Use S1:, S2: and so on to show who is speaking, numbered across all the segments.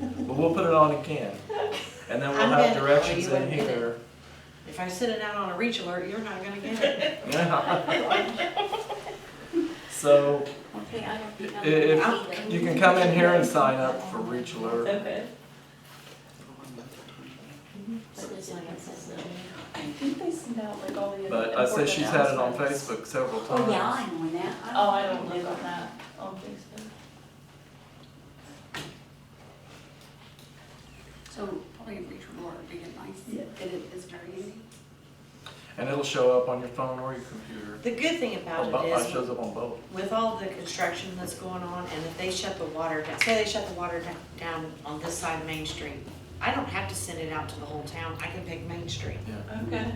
S1: we'll put it on again. And then we'll
S2: I'm
S1: have
S2: gonna- oh,
S1: directions
S2: you
S1: in
S2: wouldn't get it.
S1: here.
S2: If I send it out on a reach alert, you're not gonna get it.
S1: So
S3: Okay, I don't think
S1: i-
S3: I'm. gonna
S1: if,
S3: be
S1: you
S3: there.
S1: can come in here and sign up for Reach Alert.
S4: Okay.
S3: But this one it says no.
S4: I think they send out like all the.
S1: But I said
S4: important
S1: she's had it on
S4: announcements.
S1: Facebook several times.
S3: Oh, yeah, I'm on that.
S4: Oh, I don't live on that, on Facebook.
S3: So probably reach more, be it nice,
S4: Yeah.
S3: and it is very easy.
S1: And it'll show up on your phone or your computer.
S2: The good thing about
S1: Or bo-
S2: it
S1: It
S2: is,
S1: shows up on both.
S2: with all the construction that's going on, and if they shut the water down, say they shut the water down, down on this side of Main Street, I don't have to send it out to the whole town, I can pick Main Street.
S4: Okay,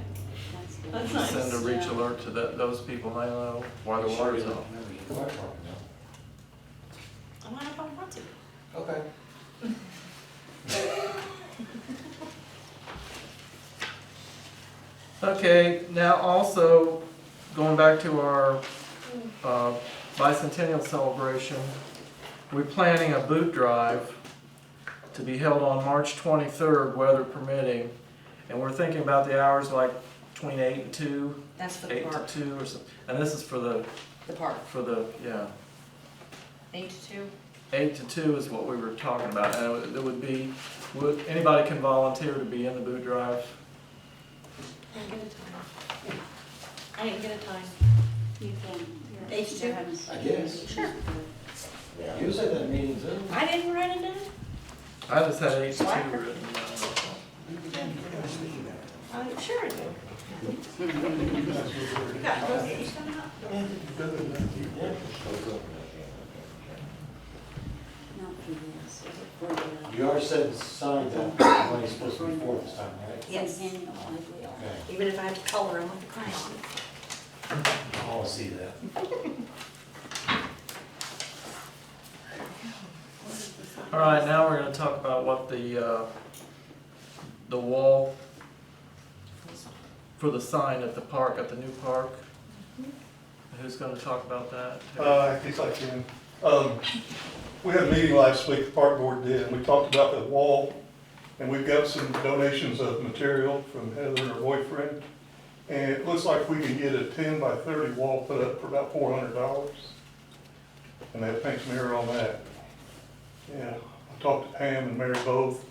S3: That's good.
S4: that's nice.
S1: Send a Reach
S4: Yeah.
S1: Alert to tho- those people they know while the water's off.
S2: I'm not about want to.
S5: Okay.
S1: Okay, now also, going back to our uh, bicentennial celebration, we're planning a boot drive to be held on March 23rd, weather permitting. And we're thinking about the hours like between eight and two,
S2: That's for the
S1: eight to
S2: park,
S1: two or something. And this is for the,
S2: the park,
S1: for the, yeah,
S2: eight to two.
S1: eight to two is what we were talking about. And it would be, would, anybody can volunteer to be in the boot drive.
S2: I didn't get a time. I didn't get a time.
S3: You can.
S2: H two?
S3: I
S5: guess.
S3: Sure.
S5: Usually that means, uh,
S2: I didn't write it down.
S1: I just had eight to two written down.
S2: I'm Uh, sure I do.
S3: Not for this, is it for the?
S5: you are setting signs up, when it's supposed to be for this time, right?
S3: Yes. Annual, I will.
S5: Okay,
S2: Even if I have to color them with the crayon.
S5: I'll see that.
S1: All right, now we're gonna talk about what the, uh, the wall for the sign at the park, at the new park. Who's gonna talk about that?
S6: Uh, I guess I can. Um, we had a meeting last week, the park board did, and we talked about the wall. And we've got some donations of material from Heather and her boyfriend. And it looks like we can get a ten by thirty wall put up for about four hundred dollars. And that paints mirror on that. Yeah, I talked to Pam and Mary both.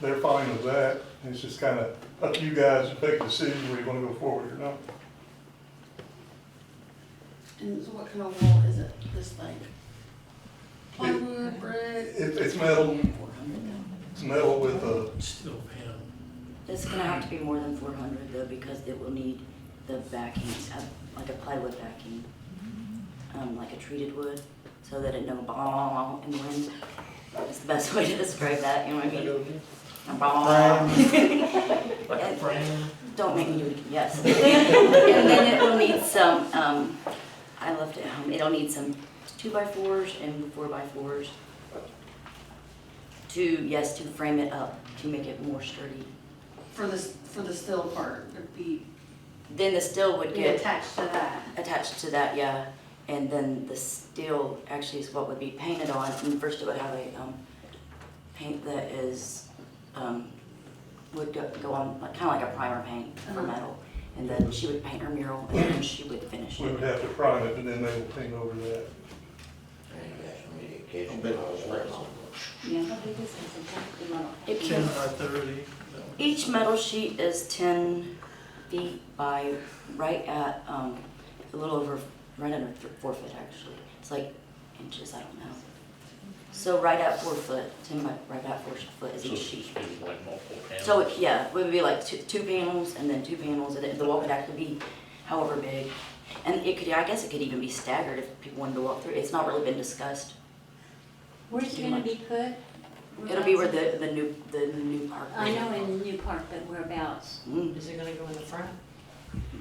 S6: They're fine with that. It's just kind of up to you guys to make a decision where you want to go forward or not.
S7: And so what kind of wall is it, this like plywood, brick?
S6: It, it's metal, it's metal with a
S3: It's gonna have to be more than four hundred though, because it will need the backing, uh, like a plywood backing, um, like a treated wood, so that it don't bong in the wind. That's the best way to describe that, you know what I mean? A bong.
S1: Like a frame?
S3: Don't make me do it, again. yes. And then it will need some, um, I left it home, it'll need some two by fours and four by fours. To, yes, to frame it up, to make it more sturdy.
S7: For the, for the still part, it'd be
S3: Then the steel would
S7: be
S3: get
S7: attached to that.
S3: attached to that, yeah. And then the steel actually is what would be painted on, and first it would have a, um, paint that is, um, would go, go on, like, kinda like a primer paint for
S7: Uh-huh.
S3: metal. And then she would paint her mural, and then she would finish
S6: We would
S3: it.
S6: have to prime it, and then they will paint over that.
S7: Yeah.
S3: How big is this exactly, metal? It
S1: Ten
S3: can,
S1: by thirty?
S3: each metal sheet is ten feet by right at, um, a little over, right under th- four foot actually. It's like inches, I don't know. So right at four foot, ten by, right at four foot is each sheet. So, it- yeah, it would be like two, two panels and then two panels, and then the wall could actually be however big. And it could, I guess it could even be staggered if people wanted to walk through, it's not really been discussed.
S8: Where's it
S3: Too
S8: gonna
S3: much.
S8: be put?
S3: It'll be where the, the new, the new park.
S8: Mm-hmm. I know in New Park, but whereabouts?
S3: Mm,
S2: Is it gonna go in the front?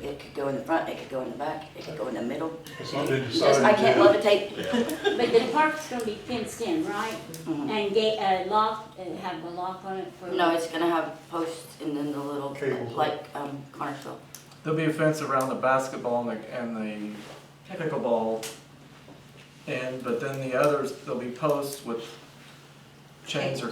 S3: It could go in the front, it could go in the back, it could go in the middle.
S6: It's not been
S3: Just,
S6: decided
S3: I can't
S6: yet.
S3: levitate.
S8: But the park's gonna be fenced in, right?
S3: Mhm.
S8: And gate, uh, lock, uh, have a lock on it for?
S3: No, it's gonna have posts and then the little,
S6: Cables.
S3: like, um, Connersville.
S1: There'll be a fence around the basketball and the, and the pickleball. And, but then the others, there'll be posts with chains or